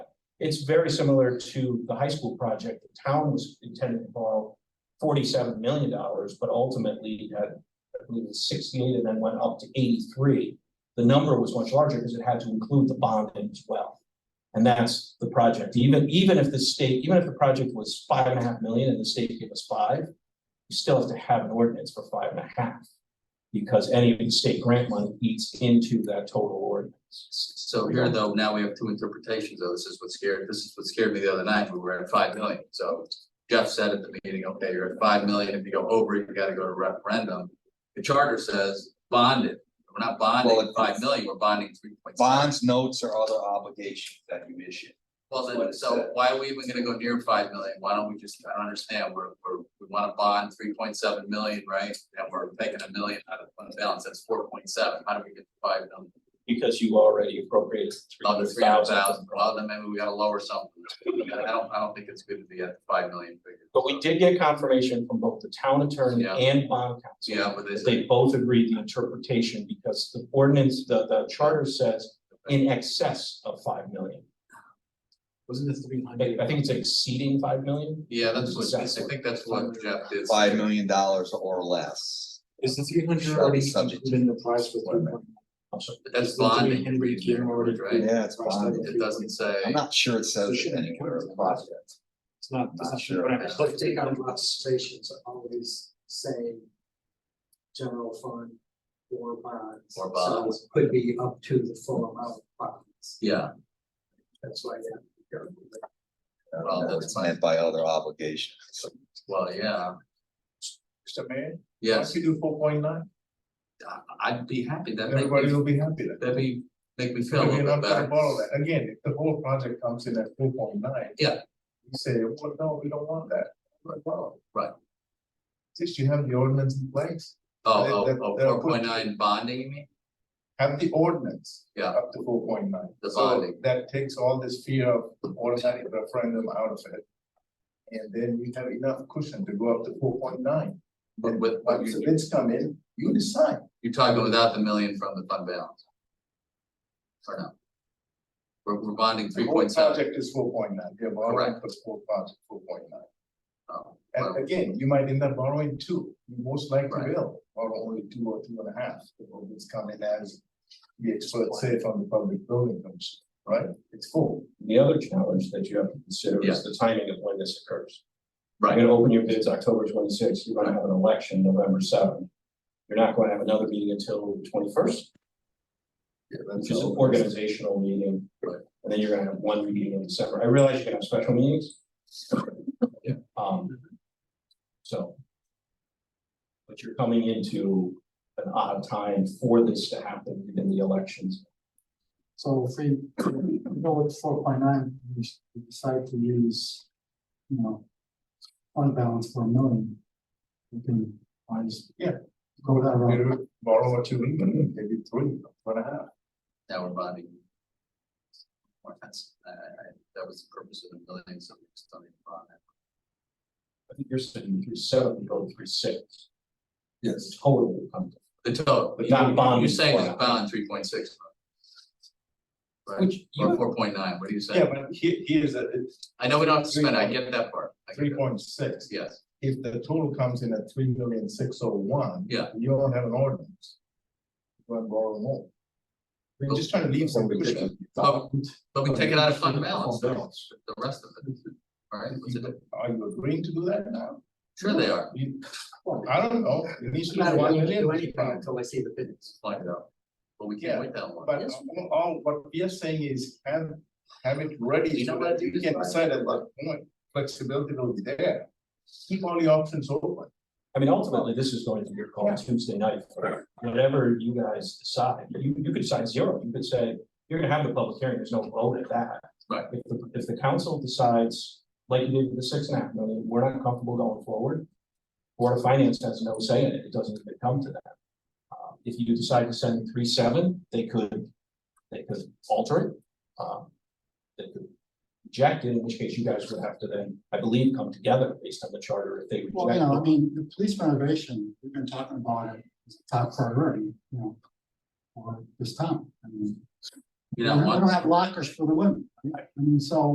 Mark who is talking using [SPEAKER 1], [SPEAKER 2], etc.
[SPEAKER 1] It's very similar to the high school project. The town was intended to borrow forty-seven million dollars, but ultimately had, I believe, it was sixty-eight and then went up to eighty-three. The number was much larger because it had to include the bond in as well. And that's the project. Even, even if the state, even if the project was five and a half million and the state gave us five, you still have to have an ordinance for five and a half. Because any of the state grant money eats into that total ordinance.
[SPEAKER 2] So here though, now we have two interpretations though. This is what scared, this is what scared me the other night. We were at five million. So Jeff said at the meeting, okay, you're at five million. If you go over, it, you gotta go to referendum. The charter says bonded. We're not bonding
[SPEAKER 3] Well,
[SPEAKER 2] at five million, we're bonding three point seven.
[SPEAKER 3] Bonds, notes, or other obligations that you issue.
[SPEAKER 2] Well, then, so why are we even gonna go near five million? Why don't we just, I don't understand. We're, we're, we wanna bond three point seven million, right? And we're taking a million out of fund balance. That's four point seven. How do we get to five million?
[SPEAKER 1] Because you already appropriated three
[SPEAKER 2] Another
[SPEAKER 1] hundred
[SPEAKER 2] three hundred
[SPEAKER 1] thousand.
[SPEAKER 2] thousand, well, then maybe we gotta lower something, I don't, I don't think it's good to be at the five million figure.
[SPEAKER 1] But we did get confirmation from both the town attorney
[SPEAKER 2] Yeah.
[SPEAKER 1] and bond counsel.
[SPEAKER 2] Yeah, but they
[SPEAKER 1] that They
[SPEAKER 2] said,
[SPEAKER 1] both agreed the interpretation because the ordinance, the, the charter says in excess of five million.
[SPEAKER 4] Wasn't this three
[SPEAKER 1] I,
[SPEAKER 4] hundred?
[SPEAKER 1] I think it's exceeding five million.
[SPEAKER 2] yeah, that's what, I think that's what Jeff did.
[SPEAKER 3] Five million dollars or less.
[SPEAKER 4] Is the three hundred
[SPEAKER 3] Shall be
[SPEAKER 4] already
[SPEAKER 3] subject to
[SPEAKER 4] included in the price for
[SPEAKER 3] employment.
[SPEAKER 4] three point?
[SPEAKER 1] I'm sorry.
[SPEAKER 2] That's bonding, and reading there, right?
[SPEAKER 3] Yeah, it's bonded.
[SPEAKER 2] It doesn't say,
[SPEAKER 3] I'm not sure it says
[SPEAKER 4] So shouldn't it
[SPEAKER 3] anywhere
[SPEAKER 4] count
[SPEAKER 3] in
[SPEAKER 4] as
[SPEAKER 3] the
[SPEAKER 4] a
[SPEAKER 3] project.
[SPEAKER 4] project? It's not, it's
[SPEAKER 3] Not
[SPEAKER 4] not
[SPEAKER 3] sure.
[SPEAKER 4] sure. Whatever.
[SPEAKER 5] Let's take out observations, always say general fund or bonds.
[SPEAKER 2] Or bonds.
[SPEAKER 5] So it Could be up to the full amount of bonds,
[SPEAKER 2] yeah,
[SPEAKER 5] that's why you have to be careful.
[SPEAKER 3] Uh,
[SPEAKER 2] Well, that's
[SPEAKER 3] It's
[SPEAKER 2] fine.
[SPEAKER 3] meant by other obligations.
[SPEAKER 2] well, yeah,
[SPEAKER 6] Mr. Mayor,
[SPEAKER 2] yes,
[SPEAKER 6] once you do four point nine,
[SPEAKER 2] I- I'd be happy, that'd make
[SPEAKER 6] everybody
[SPEAKER 2] me,
[SPEAKER 6] will be happy then.
[SPEAKER 2] that'd be, make me feel a
[SPEAKER 6] But We're
[SPEAKER 2] little
[SPEAKER 6] not
[SPEAKER 2] bit
[SPEAKER 6] gonna
[SPEAKER 2] better.
[SPEAKER 6] borrow that, again, if the whole project comes in at four point nine.
[SPEAKER 2] Yeah.
[SPEAKER 6] You say, well, no, we don't want that, Like, wow.
[SPEAKER 2] Right.
[SPEAKER 6] Since you have the ordinance in place,
[SPEAKER 2] Oh, oh,
[SPEAKER 6] That-
[SPEAKER 2] oh,
[SPEAKER 6] that-
[SPEAKER 2] four point nine bonding, you mean?
[SPEAKER 6] have the ordinance.
[SPEAKER 2] Yeah.
[SPEAKER 6] Up to four point nine.
[SPEAKER 2] The bonding.
[SPEAKER 6] That takes all this fear of automatic referendum out of it. And then you have enough cushion to go up to four point nine.
[SPEAKER 2] But with, but
[SPEAKER 6] Once the
[SPEAKER 2] you,
[SPEAKER 6] bids come in, you decide.
[SPEAKER 2] you're talking without the million from the fund balance? Or no? We're, we're bonding
[SPEAKER 6] The
[SPEAKER 2] three
[SPEAKER 6] whole
[SPEAKER 2] point seven.
[SPEAKER 6] project is four point nine, they're borrowing for four project, four point nine.
[SPEAKER 2] Oh,
[SPEAKER 6] And again, you might end up borrowing two, you most likely
[SPEAKER 2] Right.
[SPEAKER 6] will, borrow only two or two and a half, if it's coming as. The experts say from the public building commission, right, it's four.
[SPEAKER 1] The other challenge that you have to consider
[SPEAKER 2] Yeah.
[SPEAKER 1] is the timing of when this occurs.
[SPEAKER 2] Right.
[SPEAKER 1] You're gonna open your bids October twenty-sixth, you're gonna have an election November seventh. You're not gonna have another meeting until twenty-first. which is an organizational meeting.
[SPEAKER 2] Right.
[SPEAKER 1] And then you're gonna have one meeting in December. I realize you're gonna have special meetings.
[SPEAKER 2] Yeah.
[SPEAKER 1] Um. So. But you're coming into an odd time for this to happen within the elections.
[SPEAKER 4] So if we if we go with four point nine, we s- we decide to use, you know, unbalanced for a million. We can, I just.
[SPEAKER 6] Yeah.
[SPEAKER 4] Go that route.
[SPEAKER 6] You Borrow a two, maybe three, one and a half.
[SPEAKER 2] Now we're bonding. Well, that's, I, I, I- that was the purpose of the building, so we just don't need to bond that.
[SPEAKER 1] I think you're sitting through seven, go through six.
[SPEAKER 3] Yes.
[SPEAKER 1] Total will come, to-
[SPEAKER 2] The total,
[SPEAKER 1] But
[SPEAKER 2] you-
[SPEAKER 1] not
[SPEAKER 2] you-
[SPEAKER 1] bonding
[SPEAKER 2] you're saying
[SPEAKER 1] for
[SPEAKER 2] it's
[SPEAKER 1] it.
[SPEAKER 2] bond three point six. Right,
[SPEAKER 1] which
[SPEAKER 2] or
[SPEAKER 1] you,
[SPEAKER 2] four point nine, what are you
[SPEAKER 6] Yeah,
[SPEAKER 2] saying?
[SPEAKER 6] but here, here's a,
[SPEAKER 2] I know we don't have to spend, I get that part. I get
[SPEAKER 6] three
[SPEAKER 2] that.
[SPEAKER 6] point six,
[SPEAKER 2] Yes,
[SPEAKER 6] if the total comes in at three million six oh one.
[SPEAKER 2] Yeah.
[SPEAKER 6] You don't have an ordinance. Go and borrow more. We're just trying to leave some cushion.
[SPEAKER 2] but, but we take it out of fund balance, the
[SPEAKER 6] Balance.
[SPEAKER 2] the rest of it. All right, what's it, do?
[SPEAKER 6] Are you agreeing to do that now?
[SPEAKER 2] sure they are,
[SPEAKER 6] You, I don't know, it needs
[SPEAKER 5] It's
[SPEAKER 6] to
[SPEAKER 5] not
[SPEAKER 6] be one
[SPEAKER 5] gonna do
[SPEAKER 6] million.
[SPEAKER 5] anything until I see the bids.
[SPEAKER 2] find it out. But we
[SPEAKER 6] Yeah,
[SPEAKER 2] can't wait that long.
[SPEAKER 6] But all- all, what we are saying is have, have it ready
[SPEAKER 2] You know
[SPEAKER 6] so
[SPEAKER 2] what,
[SPEAKER 6] that you
[SPEAKER 2] this
[SPEAKER 6] can
[SPEAKER 2] is-
[SPEAKER 6] decide at that point, flexibility will be there. Keep all the options open.
[SPEAKER 1] I mean, ultimately, this is going to be your call Tuesday night. for Whatever you guys decide, you, you could decide zero, you could say, you're gonna have the public hearing, there's no vote at that.
[SPEAKER 2] Right.
[SPEAKER 1] If the, if the council decides, like you did with the six and a half million, we're not comfortable going forward. Board of Finance has no say in it, it doesn't even come to that. Uh, If you decide to send three seven, they could, they could alter it. um, They could reject it, in which case you guys would have to then, I believe, come together based on the charter if they reject.
[SPEAKER 4] Well, you
[SPEAKER 1] it.
[SPEAKER 4] know, I mean, the police renovation, we've been talking about it, as a top priority, you know. For this town, I mean,
[SPEAKER 2] You
[SPEAKER 4] we
[SPEAKER 2] know,
[SPEAKER 4] don't we
[SPEAKER 2] once-
[SPEAKER 4] don't have lockers for the women, I mean, so.